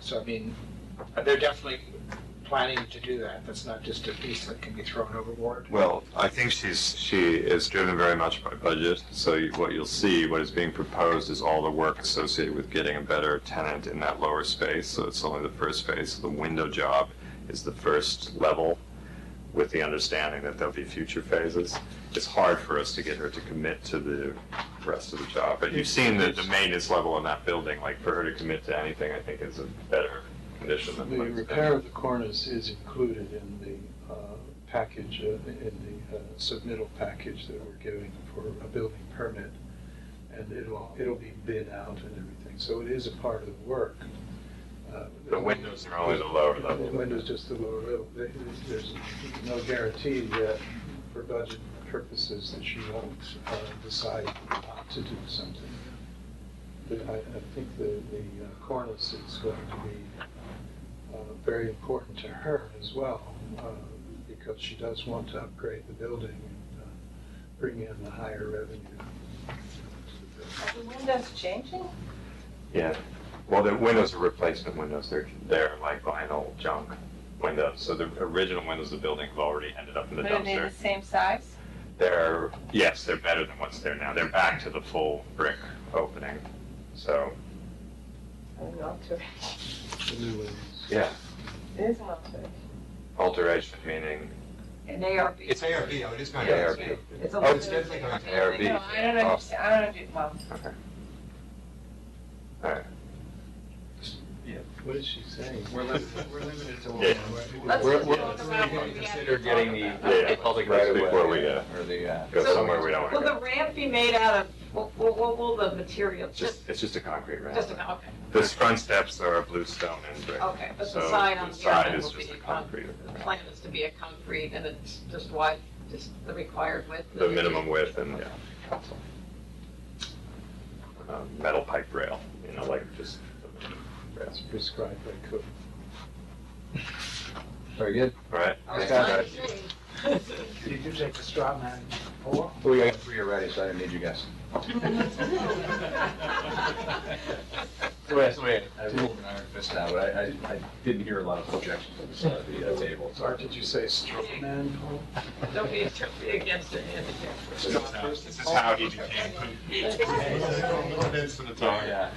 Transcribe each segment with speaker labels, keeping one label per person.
Speaker 1: So I mean, they're definitely planning to do that. That's not just a piece that can be thrown overboard.
Speaker 2: Well, I think she's, she is driven very much by budget, so you- what you'll see, what is being proposed is all the work associated with getting a better tenant in that lower space, so it's only the first phase, the window job is the first level, with the understanding that there'll be future phases. It's hard for us to get her to commit to the rest of the job, but you've seen the, the maintenance level in that building, like, for her to commit to anything, I think is a better condition than.
Speaker 3: The
Speaker 2: what it's been.
Speaker 3: repair of the cornice is included in the uh, package, uh, in the uh, submittal package that we're giving for a building permit. And it'll, it'll be bid out and everything, so it is a part of the work. Uh,
Speaker 2: The windows are only the lower level.
Speaker 3: The windows just the lower level. They- There's no guarantee that for budget purposes that she won't uh, decide not to do something. But I, I think the, the uh, cornice is going to be uh, very important to her as well, uh, because she does want to upgrade the building and uh, bring in the higher revenue.
Speaker 4: Are the windows changing?
Speaker 2: Yeah, well, the windows are replacement windows, they're, they're like vinyl junk windows, so the original windows of the building have already ended up in the
Speaker 4: But are they the
Speaker 2: dumpster.
Speaker 4: same size?
Speaker 2: They're, yes, they're better than what's there now, they're back to the full brick opening, so,
Speaker 4: Or an alteration?
Speaker 3: The new ones.
Speaker 2: yeah,
Speaker 4: It is an alteration.
Speaker 2: alteration meaning.
Speaker 4: An ARB.
Speaker 5: It's ARB, oh, it is going to
Speaker 2: ARB.
Speaker 5: ARB.
Speaker 4: It's a
Speaker 2: Oh,
Speaker 5: it's definitely going to
Speaker 2: ARB.
Speaker 4: No, I
Speaker 2: Oh.
Speaker 4: don't understand, I don't understand, well,
Speaker 2: Okay. All right,
Speaker 3: What is she saying?
Speaker 5: We're limited, we're limited to one.
Speaker 2: Yeah.
Speaker 4: Let's
Speaker 2: We're-
Speaker 4: just
Speaker 2: we're-
Speaker 4: talk about what we
Speaker 5: Consider
Speaker 4: have to
Speaker 5: getting the,
Speaker 4: talk
Speaker 2: Yeah,
Speaker 5: the public
Speaker 2: that's
Speaker 5: right away.
Speaker 2: before we, uh,
Speaker 5: Or the, uh.
Speaker 2: go
Speaker 6: So-
Speaker 2: somewhere we don't
Speaker 6: Will
Speaker 2: want to
Speaker 6: the
Speaker 2: go.
Speaker 6: ramp be made out of, what, what, what will the material,
Speaker 2: It's
Speaker 6: just,
Speaker 2: Just, it's just a concrete ramp.
Speaker 6: just Oh. about, okay,
Speaker 2: The front steps are blue stone and brick.
Speaker 6: okay, but
Speaker 2: So
Speaker 6: the side on
Speaker 2: the
Speaker 6: the other
Speaker 2: side
Speaker 6: end
Speaker 2: is
Speaker 6: will
Speaker 2: just
Speaker 6: be
Speaker 2: a
Speaker 6: a con,
Speaker 2: concrete.
Speaker 6: the
Speaker 2: ramp.
Speaker 6: plan is to be a concrete, and it's just wide, just the required width?
Speaker 2: the minimum width and uh, metal pipe rail, you know, like just.
Speaker 3: It's prescribed by code.
Speaker 5: Very good.
Speaker 2: All right.
Speaker 6: All right,
Speaker 5: Yeah.
Speaker 6: line three.
Speaker 1: You do take the straw man poll.
Speaker 5: We got three already, so I didn't need you guys. Wait, wait. I rolled an iron fist now, but I, I, I didn't hear a lot of objections from the side of the uh, table,
Speaker 3: Or
Speaker 5: sorry.
Speaker 3: did you say straw man poll?
Speaker 6: Don't be, don't be against it, Andy.
Speaker 2: This is how- this is how he became. That's what it's all-
Speaker 5: Yeah.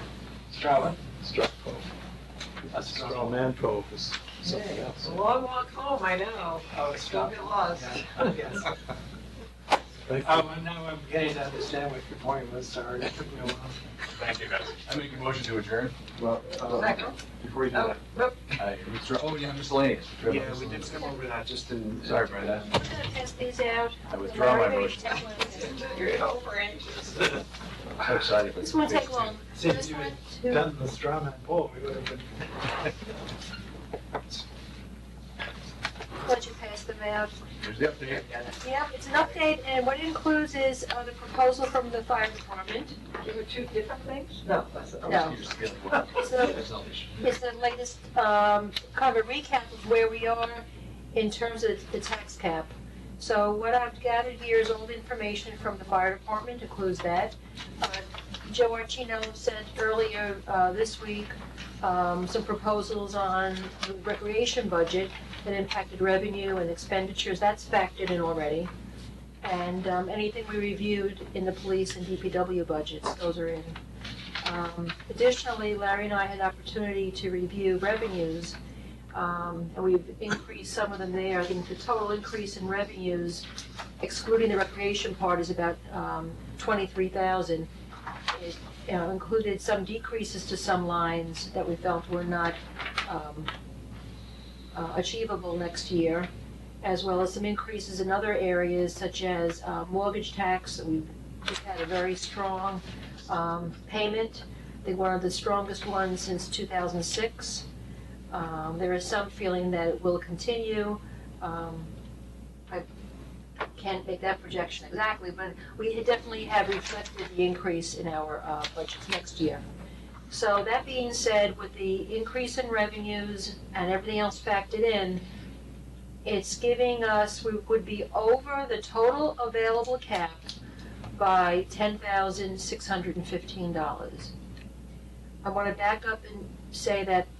Speaker 3: Straw.
Speaker 2: Straw.
Speaker 3: A straw man poll is something
Speaker 6: Yeah, Oh. It's
Speaker 3: else.
Speaker 6: a long walk home, I know,
Speaker 1: Oh,
Speaker 6: still get lost.
Speaker 3: Thank you.
Speaker 1: Oh, now I'm getting to understand what your point was, sorry. It took me a while.
Speaker 2: Thank you, guys.
Speaker 5: I make a motion to adjourn. Well, uh,
Speaker 6: Second,
Speaker 5: before you do
Speaker 6: oh,
Speaker 5: that,
Speaker 6: nope.
Speaker 5: I withdraw, oh, yeah, miscellaneous.
Speaker 1: Yeah, we did come over that just in.
Speaker 5: Sorry, Brenda.
Speaker 7: We're gonna test these out.
Speaker 5: I withdraw my motion.
Speaker 6: You're over anxious.
Speaker 5: I'm excited.
Speaker 7: This won't take long.
Speaker 1: See, if
Speaker 7: This
Speaker 1: you
Speaker 7: one,
Speaker 1: had
Speaker 7: two.
Speaker 1: done the straw man poll, we would have been.
Speaker 7: Once you pass them out.
Speaker 5: There's the update.
Speaker 7: Yep, it's an update, and what it includes is uh, the proposal from the fire department.
Speaker 6: There were two different things? No, that's
Speaker 5: I
Speaker 6: it.
Speaker 7: No.
Speaker 5: was just feeling well.
Speaker 7: It's the,
Speaker 5: Selfish.
Speaker 7: it's the latest, um, kind of a recap of where we are in terms of the tax cap. So what I've gathered here is all the information from the fire department, includes that. Uh, Joe Archino sent earlier uh, this week um, some proposals on the recreation budget that impacted revenue and expenditures, that's factored in already. And um, anything we reviewed in the police and DPW budgets, those are in. Um, Additionally, Larry and I had opportunity to review revenues, um, and we've increased some of them there. I think the total increase in revenues, excluding the recreation part, is about um, 23,000. It you know, included some decreases to some lines that we felt were not um, uh, achievable next year, as well as some increases in other areas such as uh, mortgage tax. We've we've had a very strong um, payment. They were the strongest ones since 2006. Um, There is some feeling that it will continue. Um, I can't make that projection exactly, but we definitely have reflected the increase in our uh, budgets next year. So that being said, with the increase in revenues and everything else factored in, it's giving us, we would be over the total available cap by ten thousand six hundred and fifteen dollars. I want to back up and say that